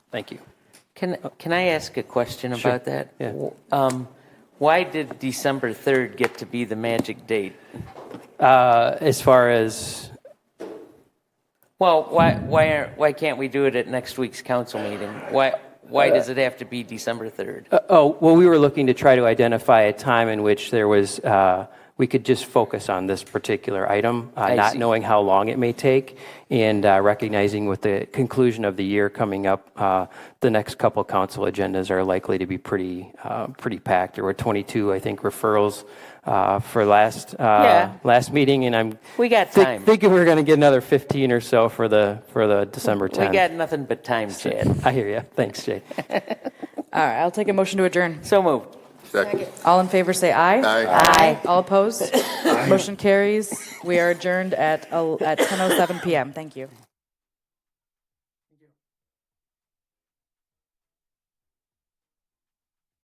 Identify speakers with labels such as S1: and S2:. S1: Thank you.
S2: Can, can I ask a question
S1: Sure.
S2: about that?
S1: Yeah.
S2: Um, Why did December 3rd get to be the magic date?
S1: Uh, As far as,
S2: Well, why, why aren't, why can't we do it at next week's council meeting? Why, why
S1: Uh,
S2: does it have to be December 3rd?
S1: oh, well, we were looking to try to identify a time in which there was, uh, we could just focus on this particular item, uh,
S2: I
S1: not
S2: see.
S1: knowing how long it may take, and uh, recognizing with the conclusion of the year coming up, uh, the next couple council agendas are likely to be pretty, uh, pretty packed. There were 22, I think, referrals uh, for last,
S2: Yeah.
S1: uh, last meeting, and I'm
S2: We got
S1: thi-
S2: time.
S1: thinking we're going to get another 15 or so for the, for the December 10th.
S2: We got nothing but time, Chad.
S1: I hear you. Thanks, Jay.
S3: All right, I'll take a motion to adjourn.
S2: So moved.
S4: Second.
S3: All in favor, say aye.
S4: Aye.
S3: Aye. All oh opposed? Motion carries. We are adjourned at, el- at 10:07 PM. Thank you.